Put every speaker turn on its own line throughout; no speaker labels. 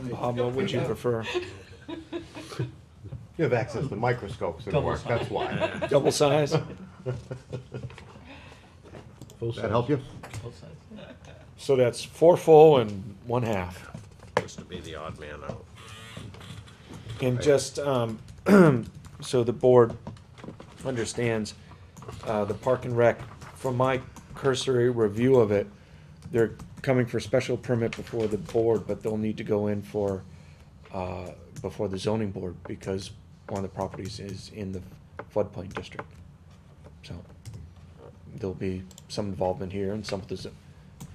Um, what would you prefer?
You have access to microscopes at
Double
work, that's why.
Double size?
Full
That help you?
Both sides.
So that's four full and one half.
Supposed to be the odd man out.
And
Right.
just, um, so the board understands, uh, the park and rec, from my cursory review of it, they're coming for special permit before the board, but they'll need to go in for, uh, before the zoning board, because one of the properties is in the floodplain district. So, there'll be some involvement here, and some with the zo-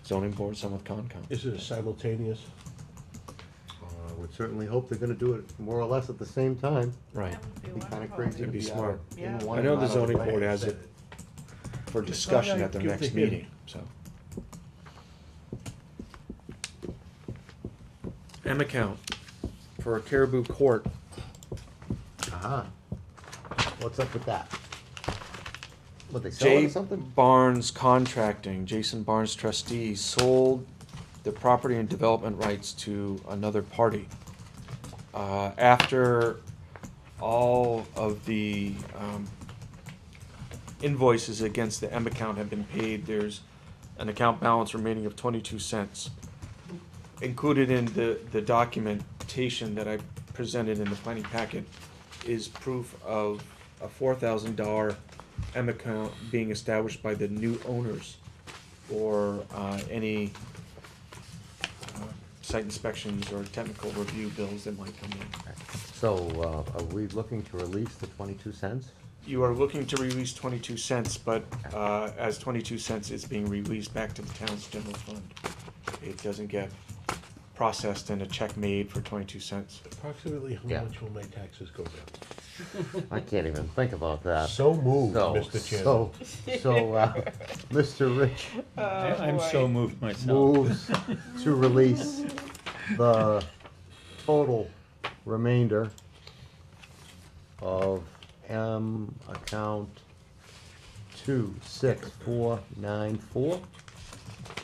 zoning board, some with Concom.
Is it simultaneous?
I Uh, would certainly hope they're gonna do it more or less at the same time.
Right.
It'd be kinda crazy to
It'd be
be
smart.
out in
Yeah.
one.
I know
and
the
out of
zoning
way.
board has it for discussion at their
Give
next
the hint.
meeting, so. M account for Caribou Court.
Aha. Uh-huh. What's up with that? What, they selling
J.
something?
Barnes Contracting, Jason Barnes trustee, sold the property and development rights to another party. Uh, after all of the, um, invoices against the M account have been paid, there's an account balance remaining of twenty-two cents. Included in the, the documentation that I presented in the planning packet is proof of a four thousand dollar M account being established by the new owners or, uh, any uh, site inspections or technical review bills that might come in.
So, uh, are we looking to release the twenty-two cents?
You are looking to release twenty-two cents, but, uh, as twenty-two cents is being released back to the town's general fund, it doesn't get processed and a check made for twenty-two cents.
Approximately
Yeah.
how much will my taxes go down?
I can't even think about that.
So moved,
Uh, So-
Mr. Chairman.
So, so, uh, Mr. Rich
I'm so moved myself.
moves to release the total remainder of M account two six four nine four.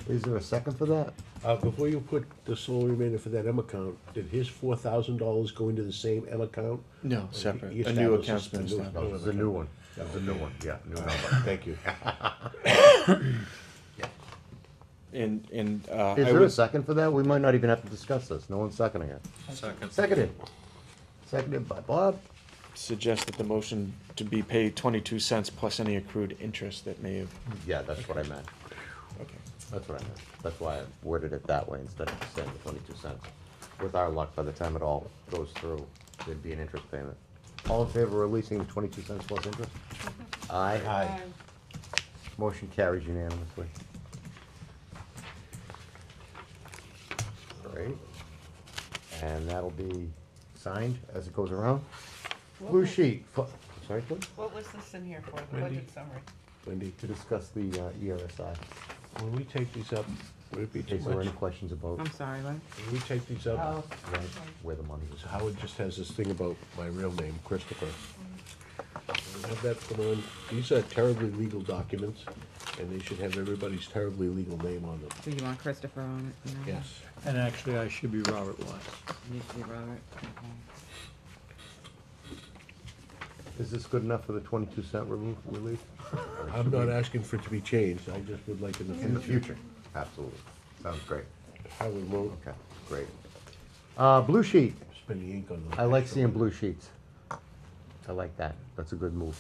Is there a second for that?
Uh, before you put the sole remainder for that M account, did his four thousand dollars go into the same M account?
No,
Or
separate.
he
A new
established
account's been
a new-
established.
No, it's a new one. It's a new one, yeah, new number.
Thank you.
And, and, uh,
Is
I
there a
was,
second for that? We might not even have to discuss this. No one's seconding it. Second. Seconded. Seconded by Bob.
suggest that the motion to be paid twenty-two cents plus any accrued interest that may have.
Yeah, that's what I meant. That's what I meant. That's why I worded it that way instead of saying the twenty-two cents. With our luck, by the time it all goes through, there'd be an interest payment. All in favor of releasing the twenty-two cents plus interest? Aye.
Aye.
Motion carries unanimously. Great. And that'll be signed as it goes around. Blue sheet, fu- sorry, please,
What was this in here for, the
Wendy?
budget summary?
Wendy,
to discuss the uh, ERSI.
when we take these up, would it be too
Is there
much?
any questions about
I'm sorry, what?
When we take these up,
where- where the money is?
Howard just has this thing about my real name, Christopher. Have that put on, these are terribly legal documents, and they should have everybody's terribly legal name on them.
Do you want Christopher on it? No.
Yes.
And actually, I should be Robert Watts.
Needs to be Robert, okay.
Is this good enough for the twenty-two cent remove, relief?
I'm not asking for it to be changed, I just would like in the
In the
future.
future, absolutely. Sounds great.
Howard won't
Okay, great. Uh, blue sheet.
spend the ink on those.
I like seeing blue sheets. I like that. That's a good move.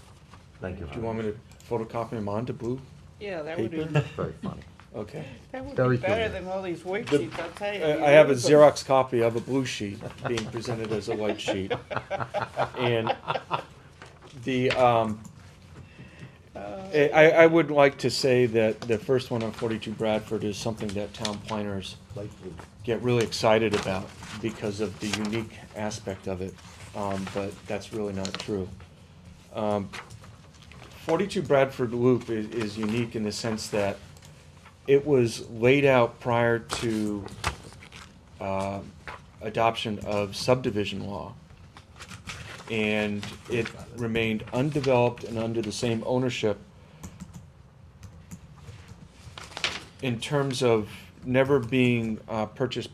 Thank you.
Do you want me to photocopy them onto blue?
Yeah, that would be,
Very funny.
Okay.
that would
Very
be
good.
better than all these worksheets, I'll tell you.
I I have a Xerox copy of a blue sheet being presented as a white sheet. And the, um, I, I I would like to say that the first one on forty-two Bradford is something that town planners
Light blue.
get really excited about because of the unique aspect of it, um, but that's really not true. Um, Forty-two Bradford Loop is, is unique in the sense that it was laid out prior to, uh, adoption of subdivision law. And it remained undeveloped and under the same ownership in terms of never being, uh, purchased